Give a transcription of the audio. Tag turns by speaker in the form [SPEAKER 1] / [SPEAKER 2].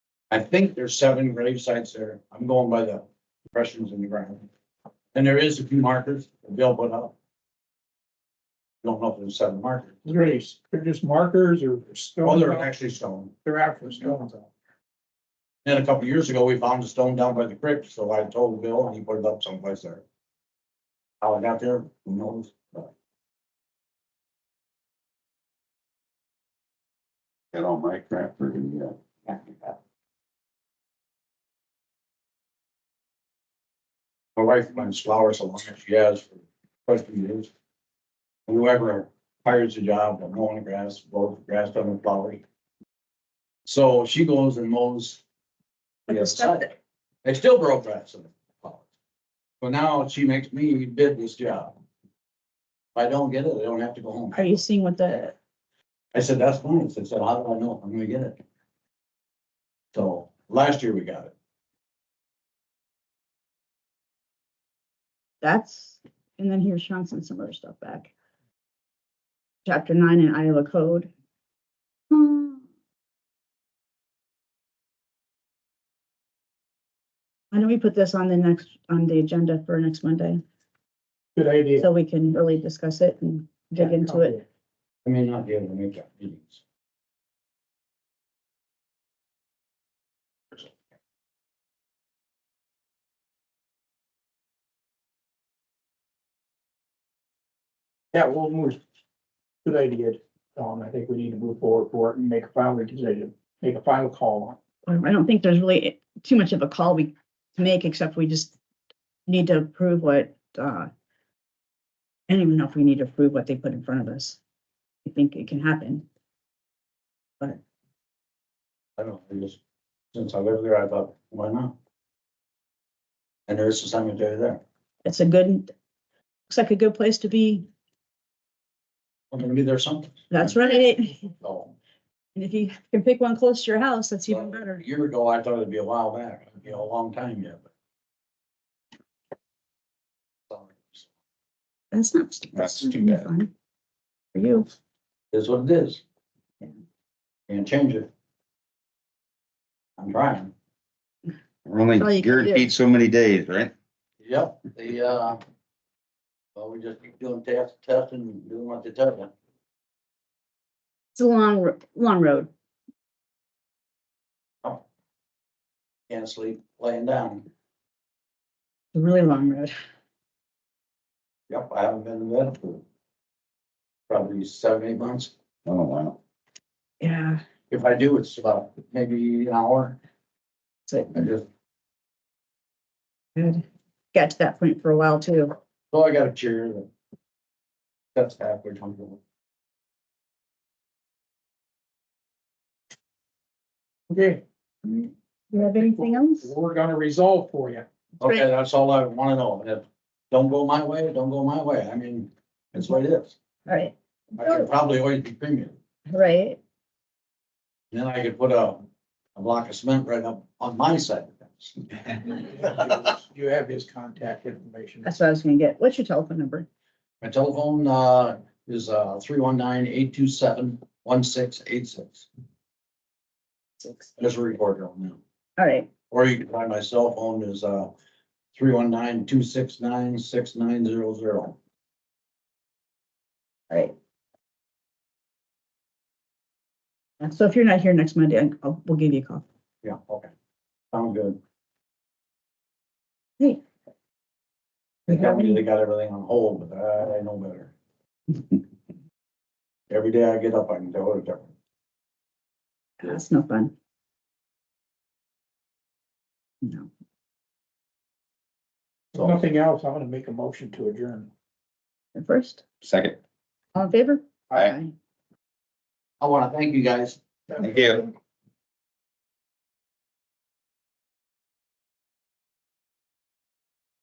[SPEAKER 1] I think there's seven grave sites there. I'm going by the impressions in the ground. And there is a few markers available up. Don't know if there's seven markers.
[SPEAKER 2] Graves, they're just markers or stone.
[SPEAKER 1] Oh, they're actually stone.
[SPEAKER 2] They're actual stones.
[SPEAKER 1] Then a couple years ago, we found a stone down by the crypt, so I told Bill and he put it up someplace there. How it got there, who knows?
[SPEAKER 3] Got all my crap for you yet.
[SPEAKER 1] My wife runs flowers along, she has for quite a few years. And Whoever hires the job, they're mowing the grass, both the grass done with flowers. So she goes and mows. the other side. They still grow grass in the flowers. But now she makes me bid this job. If I don't get it, I don't have to go home.
[SPEAKER 4] Are you seeing what the,
[SPEAKER 1] I said, that's fine. I said, "So how do I know if I'm gonna get it? So last year we got it.
[SPEAKER 4] that's, and then here's Sean sent some other stuff back. Chapter nine in Iowa code. Why don't we put this on the next, on the agenda for next Monday,
[SPEAKER 2] Good idea.
[SPEAKER 4] so we can really discuss it and dig into it?
[SPEAKER 1] I may not be able to make that meetings.
[SPEAKER 2] Yeah, we'll move. Good idea, Tom. I think we need to move forward for it and make a final decision, make a final call on. it.
[SPEAKER 4] I don't think there's really too much of a call we to make, except we just need to approve what, uh, I don't even know if we need to approve what they put in front of us. I think it can happen.
[SPEAKER 1] I don't, know, I just, since I live there, I thought, why not? And there is a cemetery there.
[SPEAKER 4] It's a good, looks like a good place to be.
[SPEAKER 1] I'm gonna be there sometime.
[SPEAKER 4] That's right.
[SPEAKER 1] So,
[SPEAKER 4] And if you can pick one close to your house, that's even
[SPEAKER 1] A
[SPEAKER 4] better.
[SPEAKER 1] year ago, I thought it'd be a while back, you know, a long time yet, but. Sorry.
[SPEAKER 4] That's not.
[SPEAKER 3] That's
[SPEAKER 4] not
[SPEAKER 3] too bad.
[SPEAKER 4] fun For you.
[SPEAKER 1] Is what it is.
[SPEAKER 4] Yeah.
[SPEAKER 1] And change it. I'm trying.
[SPEAKER 3] We're
[SPEAKER 4] That's all
[SPEAKER 3] only
[SPEAKER 4] you can do.
[SPEAKER 3] guaranteed so many days, right?
[SPEAKER 1] Yep, the, uh, well, we just keep doing test, testing, and doing what they tell you.
[SPEAKER 4] It's a long, ro- long road.
[SPEAKER 1] Can't sleep laying down.
[SPEAKER 4] A really long road.
[SPEAKER 1] Yep, I haven't been to bed for probably seven, eight months.
[SPEAKER 3] Oh, wow.
[SPEAKER 4] Yeah.
[SPEAKER 1] If I do, it's about maybe an hour.
[SPEAKER 4] So
[SPEAKER 1] I just,
[SPEAKER 4] good. Got to that point for a while too.
[SPEAKER 1] so I got a chair that that's halfway comfortable.
[SPEAKER 2] Okay,
[SPEAKER 4] You have anything else?
[SPEAKER 2] we're gonna resolve for you.
[SPEAKER 1] Okay, that's all I wanna know. And if don't go my way, don't go my way. I mean, that's what it is.
[SPEAKER 4] All right,
[SPEAKER 1] I could probably always be premium.
[SPEAKER 4] right.
[SPEAKER 1] Then I could put a, a block of cement right up on my side of the fence.
[SPEAKER 2] You have his contact information.
[SPEAKER 4] That's what I was gonna get. What's your telephone number?
[SPEAKER 1] My telephone, uh, is, uh, three one nine eight two seven one six eight six.
[SPEAKER 4] Six.
[SPEAKER 1] There's a recorder on now.
[SPEAKER 4] All right,
[SPEAKER 1] Or you can find my cell phone is, uh, three one nine two six nine six nine zero zero.
[SPEAKER 4] all right. And so if you're not here next Monday, I'll- I'll, we'll give you a call.
[SPEAKER 1] Yeah, okay. Sounds good.
[SPEAKER 4] Hey.
[SPEAKER 1] They tell me they got everything on hold, but I, I know better. Every day I get up, I can tell it different.
[SPEAKER 4] That's no fun. No,
[SPEAKER 2] If Nothing else, I'm gonna make a motion to adjourn.
[SPEAKER 4] at first,
[SPEAKER 3] Second.
[SPEAKER 4] all in favor?
[SPEAKER 3] Aye.
[SPEAKER 1] I wanna thank you guys.
[SPEAKER 3] Thank you.